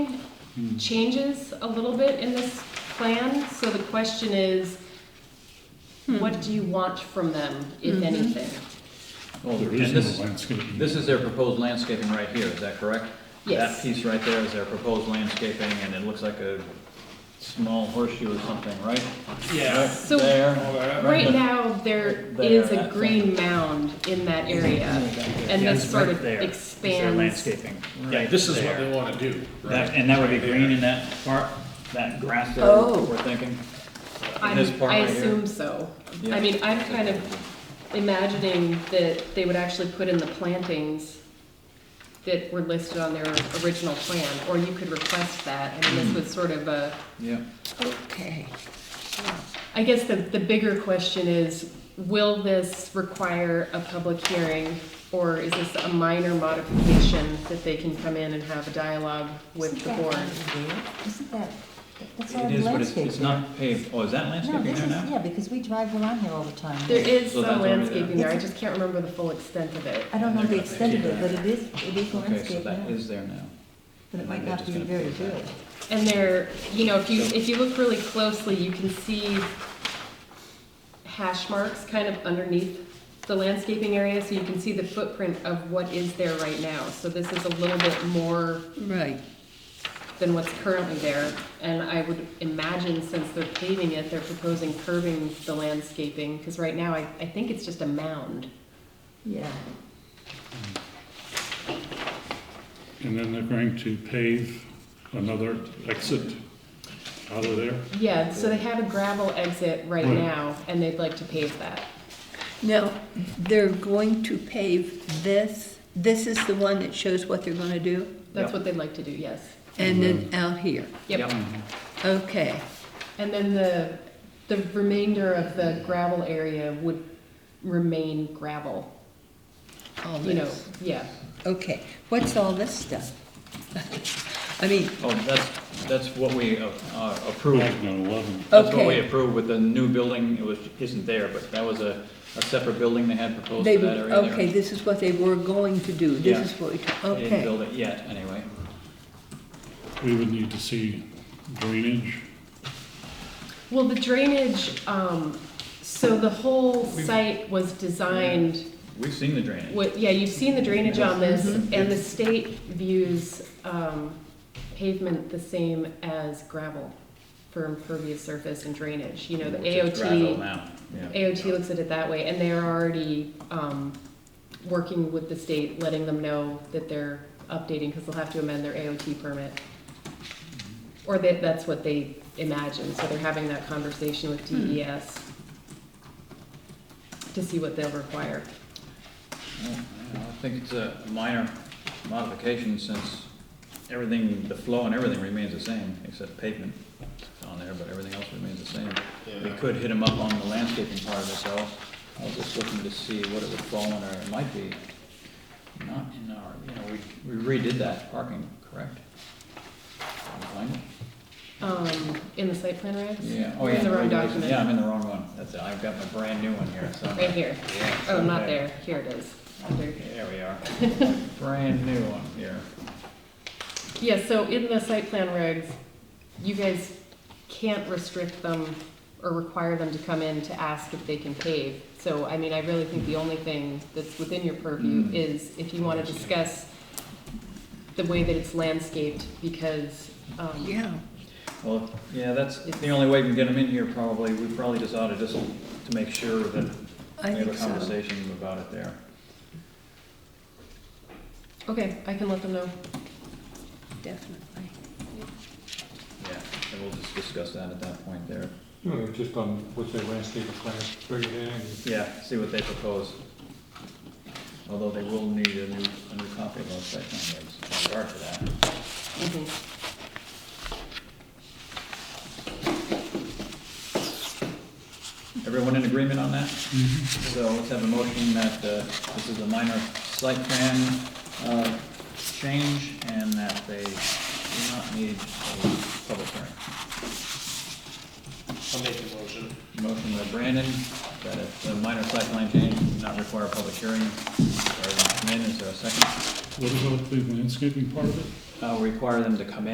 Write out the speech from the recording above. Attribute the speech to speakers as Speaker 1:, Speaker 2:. Speaker 1: changes a little bit in this plan, so the question is, what do you want from them, if
Speaker 2: Mm-hmm.
Speaker 1: anything?
Speaker 3: Well,
Speaker 4: There
Speaker 3: and
Speaker 4: is no
Speaker 3: this,
Speaker 4: landscaping.
Speaker 3: this is their proposed landscaping right here, is that correct?
Speaker 1: Yes.
Speaker 3: That piece right there is their proposed landscaping, and it looks like a small horseshoe or something, right?
Speaker 5: Yeah.
Speaker 1: So-
Speaker 3: Right There.
Speaker 1: Right now, there
Speaker 3: There,
Speaker 1: is
Speaker 3: I
Speaker 1: a
Speaker 3: think.
Speaker 1: green mound in that area, and
Speaker 2: Yeah,
Speaker 1: this
Speaker 2: it's
Speaker 1: sort
Speaker 2: right
Speaker 1: of
Speaker 2: there. Is there
Speaker 1: expands.
Speaker 2: landscaping?
Speaker 5: Yeah, this is what
Speaker 2: There.
Speaker 5: they wanna do,
Speaker 2: That,
Speaker 5: right?
Speaker 2: and that would be
Speaker 5: Right there.
Speaker 2: green in that part?
Speaker 3: That grass there,
Speaker 1: Oh.
Speaker 3: we're thinking,
Speaker 1: I'm-
Speaker 3: this part
Speaker 1: I
Speaker 3: right here?
Speaker 1: assume so.
Speaker 3: Yeah.
Speaker 1: I mean, I'm kind of imagining that they would actually put in the plantings that were listed on their original plan, or you could request that, I
Speaker 3: Mm-hmm.
Speaker 1: mean, this was sort of a,
Speaker 3: yeah.
Speaker 1: okay. I guess the, the bigger question is, will this require a public hearing? Or is this a minor modification that they can come in and have a dialogue with
Speaker 6: Isn't
Speaker 1: the
Speaker 6: that
Speaker 1: board?
Speaker 6: weird? Isn't that, that's all
Speaker 3: It is, but it's,
Speaker 6: landscaping.
Speaker 3: it's not paved, oh, is that
Speaker 6: No,
Speaker 3: landscaping
Speaker 6: this
Speaker 3: there
Speaker 6: is,
Speaker 3: now?
Speaker 6: yeah, because we drive around here all the time.
Speaker 1: There is
Speaker 3: So that's
Speaker 1: some
Speaker 3: already there.
Speaker 1: landscaping there, I just can't remember the full extent of it.
Speaker 6: I don't know
Speaker 3: They're
Speaker 6: the
Speaker 3: gonna
Speaker 6: extent of
Speaker 3: keep
Speaker 6: it, but it is, it is
Speaker 3: Okay, so
Speaker 6: landscape now,
Speaker 3: that is there now.
Speaker 6: but it might
Speaker 3: They're
Speaker 6: not
Speaker 3: just
Speaker 6: be
Speaker 3: gonna
Speaker 6: very
Speaker 3: pave that.
Speaker 6: good.
Speaker 1: And there, you know, if you,
Speaker 3: So-
Speaker 1: if you look really closely, you can see hash marks kind of underneath the landscaping area, so you can see the footprint of what is there right now. So this is a little bit more
Speaker 7: Right.
Speaker 1: than what's currently there. And I would imagine since they're paving it, they're proposing curving the landscaping, because right now, I, I think it's just a mound.
Speaker 6: Yeah,
Speaker 4: And then they're going to pave another exit out of there.
Speaker 1: Yeah, so they have a gravel exit right
Speaker 4: Right.
Speaker 1: now, and they'd like to pave that.
Speaker 7: Now, they're going to pave this, this is the one that shows what they're gonna do,
Speaker 1: That's
Speaker 3: Yep.
Speaker 1: what they'd like to do, yes.
Speaker 7: and then
Speaker 3: Mm-hmm.
Speaker 7: out here.
Speaker 1: Yep.
Speaker 7: Okay,
Speaker 1: And then the, the remainder of the gravel area would remain gravel,
Speaker 7: all
Speaker 1: you know,
Speaker 7: this.
Speaker 1: yeah.
Speaker 7: Okay, what's all this stuff? I mean,
Speaker 3: Oh, that's, that's what we uh, uh, approved
Speaker 4: Back on eleven.
Speaker 3: That's what we
Speaker 7: okay,
Speaker 3: approved with the new building, it was, isn't there, but that was a, a separate building they had proposed
Speaker 7: they,
Speaker 3: for that area there.
Speaker 7: okay, this is what they were going to do,
Speaker 3: Yeah.
Speaker 7: this is what we,
Speaker 3: They didn't
Speaker 7: okay.
Speaker 3: build it yet, anyway.
Speaker 4: We would need to see drainage.
Speaker 1: Well, the drainage, um, so the whole site was designed,
Speaker 3: We've seen the drainage.
Speaker 1: what, yeah, you've seen the drainage on this, and the state views, um, pavement the same as gravel for impervious surface and drainage, you know, the
Speaker 3: Which is gravel
Speaker 1: AOT,
Speaker 3: now, yeah.
Speaker 1: AOT looks at it that way, and they're already, um, working with the state, letting them know that they're updating, because they'll have to amend their AOT permit. Or that, that's what they imagine, so they're having that conversation with DES to see what they'll require.
Speaker 3: Oh, yeah, I think it's a minor modification since everything, the flow and everything remains the same, except pavement on there, but everything else remains the same. We could hit them up on the landscaping part of this, though. I was just looking to see what it would fall under, it might be not in our, you know, we we redid that parking, correct? Can you find it?
Speaker 1: Um, in the site plan, regs?
Speaker 3: Yeah, oh
Speaker 1: We're
Speaker 3: yeah.
Speaker 1: in the wrong
Speaker 3: regulations.
Speaker 1: document.
Speaker 3: Yeah, I'm in the wrong one, that's it, I've got my brand new one here, so.
Speaker 1: Right here.
Speaker 3: Yeah,
Speaker 1: Oh, not
Speaker 3: okay.
Speaker 1: there, here it is. Under-
Speaker 3: There we are. Brand new one here.
Speaker 1: Yeah, so in the site plan regs, you guys can't restrict them or require them to come in to ask if they can pave. So, I mean, I really think the only thing that's within your purview
Speaker 3: Mm.
Speaker 1: is if you want to discuss the way that it's landscaped, because, um,
Speaker 7: Yeah,
Speaker 3: Well, yeah, that's the only way we can get them in here probably. We probably just ought to just, to make sure that we
Speaker 7: I
Speaker 3: have a
Speaker 7: think so.
Speaker 3: conversation about it there.
Speaker 1: okay, I can let them know.
Speaker 7: Definitely.
Speaker 3: Yeah, and we'll just discuss that at that point there.
Speaker 8: No, just on what's their landscape plan, bring it in and
Speaker 3: Yeah, see what they propose. Although they will need a new, a new copy of those site plan regs in regard to that.
Speaker 1: Mhm.
Speaker 3: Everyone in agreement on that? So let's have a motion that uh, this is a minor site plan uh, change and that they do not need a public hearing.
Speaker 5: I'll make the motion.
Speaker 3: Motion by Brandon, that if the minor site plan change does not require a public hearing, or not come in, is there a second?
Speaker 4: What about the landscaping part of it?
Speaker 3: Uh, require them to come in.